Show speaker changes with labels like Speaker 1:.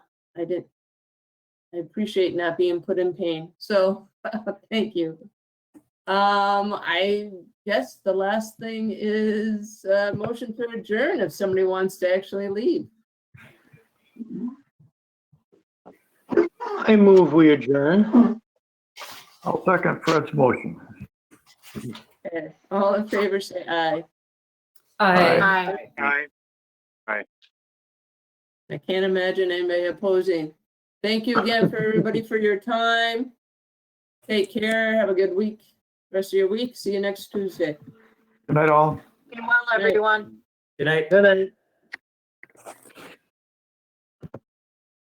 Speaker 1: I didn't. I appreciate not being put in pain. So thank you. Um, I guess the last thing is uh, motion to adjourn if somebody wants to actually leave.
Speaker 2: I move we adjourn.
Speaker 3: I'll second Fred's motion.
Speaker 1: Okay, All in favor, say aye.
Speaker 3: Aye.
Speaker 4: Aye.
Speaker 1: I can't imagine anybody opposing. Thank you again for everybody for your time. Take care. Have a good week. Rest of your week. See you next Tuesday.
Speaker 3: Good night, all.
Speaker 4: Be well, everyone.
Speaker 5: Good night.
Speaker 2: Good night.